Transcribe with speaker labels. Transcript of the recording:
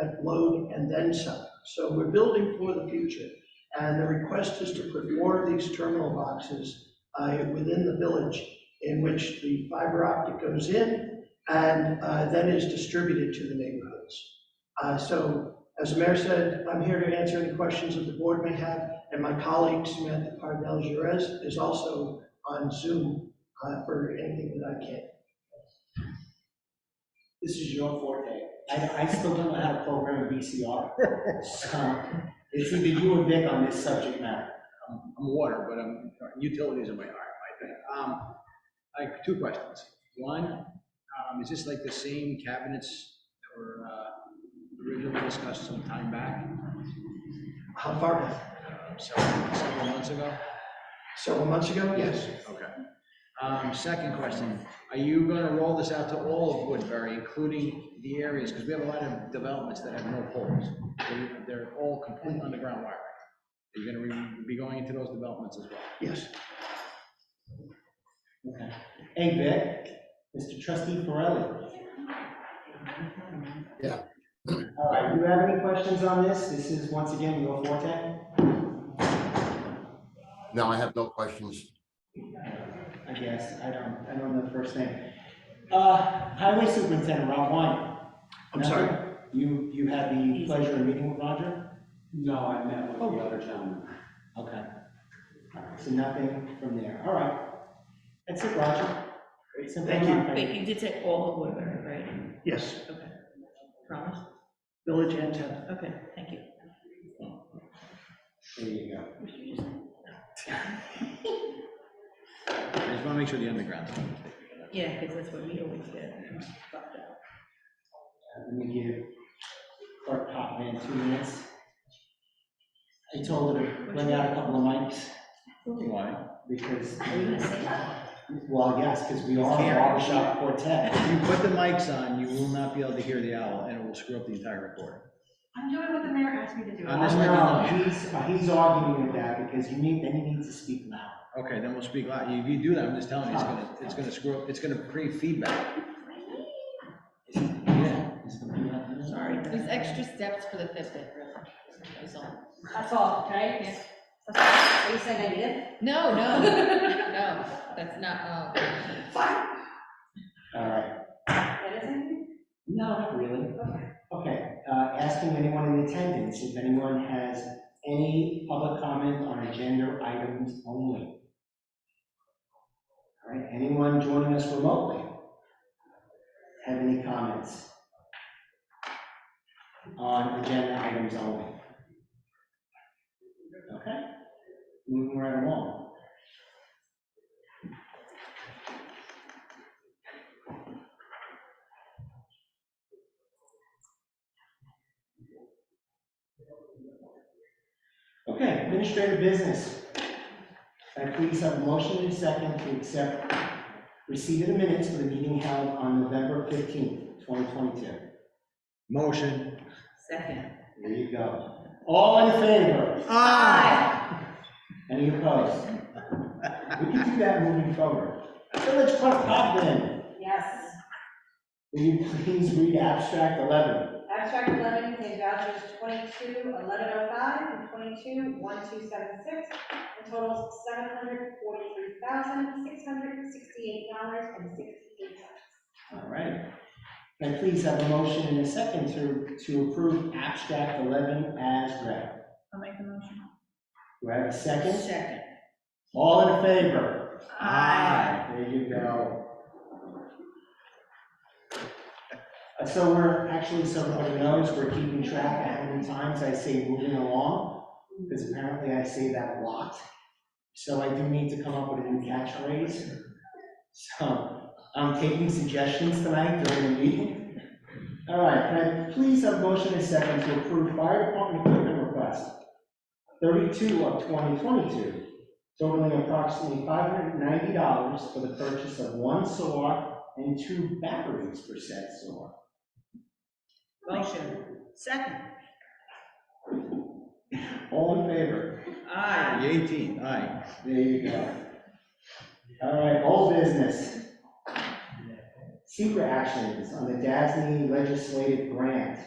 Speaker 1: that load and then some. So we're building for the future. And the request is to put more of these terminal boxes uh, within the village in which the fiber optic goes in and uh, then is distributed to the neighborhoods. Uh, So as the mayor said, I'm here to answer any questions that the board may have. And my colleague Samantha Cardell Jerez is also on Zoom uh, for anything that I can.
Speaker 2: This is your forte. I, I still don't know how to program a VCR. So, It's either you or Vic on this subject matter.
Speaker 3: I'm I'm water, but I'm, utilities are my heart, I think. Um, I have two questions. One, um, is this like the same cabinets that were, uh, originally discussed some time back,
Speaker 1: How far back?
Speaker 3: uh, several, several months ago?
Speaker 1: Several months ago? Yes.
Speaker 3: Okay. Um, second question, are you gonna roll this out to all of Woodbury, including the areas, because we have a lot of developments that have no poles. They- They're all complete underground wiring. Are you gonna re- be going into those developments as well?
Speaker 1: Yes.
Speaker 2: Okay. Hey, Vic, Mr. Trustee Farrelly.
Speaker 4: Yeah.
Speaker 2: All right, you have any questions on this? This is once again your forte.
Speaker 4: No, I have no questions.
Speaker 2: I guess. I don't, I don't know the first name. Uh, Highway Superintendent Rob Wine.
Speaker 1: I'm sorry?
Speaker 2: Nothing? You, you had the pleasure of meeting with Roger?
Speaker 5: No, I met with the other gentleman.
Speaker 2: Okay. All right, So nothing from there. All right. That's it, Roger. Great, simple
Speaker 1: Thank you.
Speaker 2: enough.
Speaker 6: Wait, you did say all of Woodbury, right?
Speaker 1: Yes,
Speaker 6: Okay. Promise?
Speaker 1: Village and Town.
Speaker 6: Okay, thank you.
Speaker 2: There you go. Uh,
Speaker 3: I just wanna make sure the underground's not mistaken.
Speaker 6: Yeah, because that's what we always get. fucked up.
Speaker 2: Let me give Clerk Popman two minutes. I told her to bring out a couple of mics
Speaker 3: Why?
Speaker 2: because,
Speaker 6: Are you gonna say that?
Speaker 2: well, yes, because we are a barbershop quartet.
Speaker 3: If you put the mics on, you will not be able to hear the owl, and it will screw up the entire recording.
Speaker 7: I'm doing what the mayor asked me to do.
Speaker 3: I'm
Speaker 2: I
Speaker 3: just
Speaker 2: don't
Speaker 3: letting you
Speaker 2: know,
Speaker 3: know.
Speaker 2: he's, uh, he's arguing with that because you need, then he needs to speak loud.
Speaker 3: Okay, then we'll speak loud. If you do that, I'm just telling you, it's gonna, it's gonna screw up, it's gonna create feedback.
Speaker 2: Yeah. he's gonna be like, "Mm,
Speaker 6: Sorry. There's extra steps for the fifth, that's all.
Speaker 7: That's all, right?
Speaker 6: Yeah.
Speaker 7: Are you saying I did?
Speaker 6: No, no, no, that's not, oh.
Speaker 2: All right,
Speaker 7: That isn't?
Speaker 2: no, not really.
Speaker 7: Okay.
Speaker 2: Okay, uh, asking anyone in attendance if anyone has any public comment on agenda items only. All right, anyone joining us remotely? Have any comments? On agenda items only? Okay, moving right along. Okay, administrative business. Can I please have a motion and a second to accept receipt of the minutes for the meeting held on November fifteenth, twenty twenty-two?
Speaker 3: Motion.
Speaker 6: Second.
Speaker 2: There you go. All in favor?
Speaker 3: Ah!
Speaker 2: Any opposed? We can do that moving forward. Village Clerk Cogden,
Speaker 7: Yes.
Speaker 2: will you please read abstract eleven?
Speaker 7: Abstract eleven contains vouchers twenty-two, eleven oh five, and twenty-two, one two seven six, and totals seven hundred forty-three thousand, six hundred sixty-eight dollars and sixty-eight cents.
Speaker 2: All right. Can I please have a motion and a second to, to approve abstract eleven as read?
Speaker 6: I'll make the motion.
Speaker 2: Do I have a second?
Speaker 6: Second.
Speaker 2: All in favor?
Speaker 6: Aye.
Speaker 2: There you go. Uh, So we're, actually, so everybody knows, we're keeping track of how many times I say moving along, because apparently I say that a lot. So I do need to come up with a new catchphrase. So I'm taking suggestions tonight during the meeting. All right, can I please have a motion and a second to approve fire department equipment request? Thirty-two of twenty twenty-two totaling approximately five hundred and ninety dollars for the purchase of one saw and two batteries for said saw.
Speaker 6: Motion. Second.
Speaker 2: All in favor?
Speaker 6: Aye.
Speaker 3: The eighteen, aye.
Speaker 2: There you go. All right, old business. Secret actions on the DASNY legislative grant.